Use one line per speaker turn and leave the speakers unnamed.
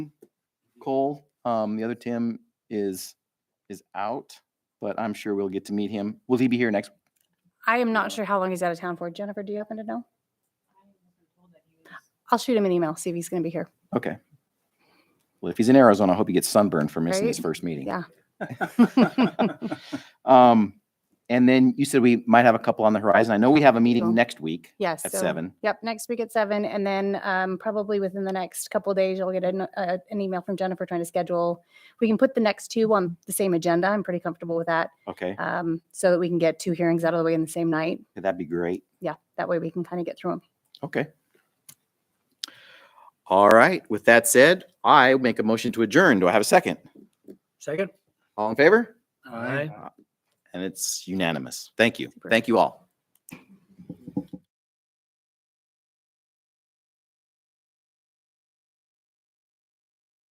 Cole. Um, the other Tim is is out, but I'm sure we'll get to meet him. Will he be here next?
I am
Yeah.
not sure how long he's out of town for. Jennifer, do you happen to know? I'll shoot him an email, see if he's going to be here.
Okay. Well, if he's in Arizona, I hope he gets sunburned for missing his
Right?
first meeting.
Yeah.
Um, and then you said we might have a couple on the horizon. I know we have a meeting
Cool.
next week
Yes.
at
so-
seven.
Yep, next week at seven, and then um, probably within the next couple of days, you'll get an, uh, an email from Jennifer trying to schedule. We can put the next two on the same agenda. I'm pretty comfortable with that,
Okay,
um, so that we can get two hearings out of the way in the same night.
that'd be great.
Yeah, that way we can kind of get through them.
Okay.
All right. With that said, I make a motion to adjourn. Do I have a second?
Second?
All in favor?
Aye.
And it's unanimous. Thank you.
Super.
Thank you all.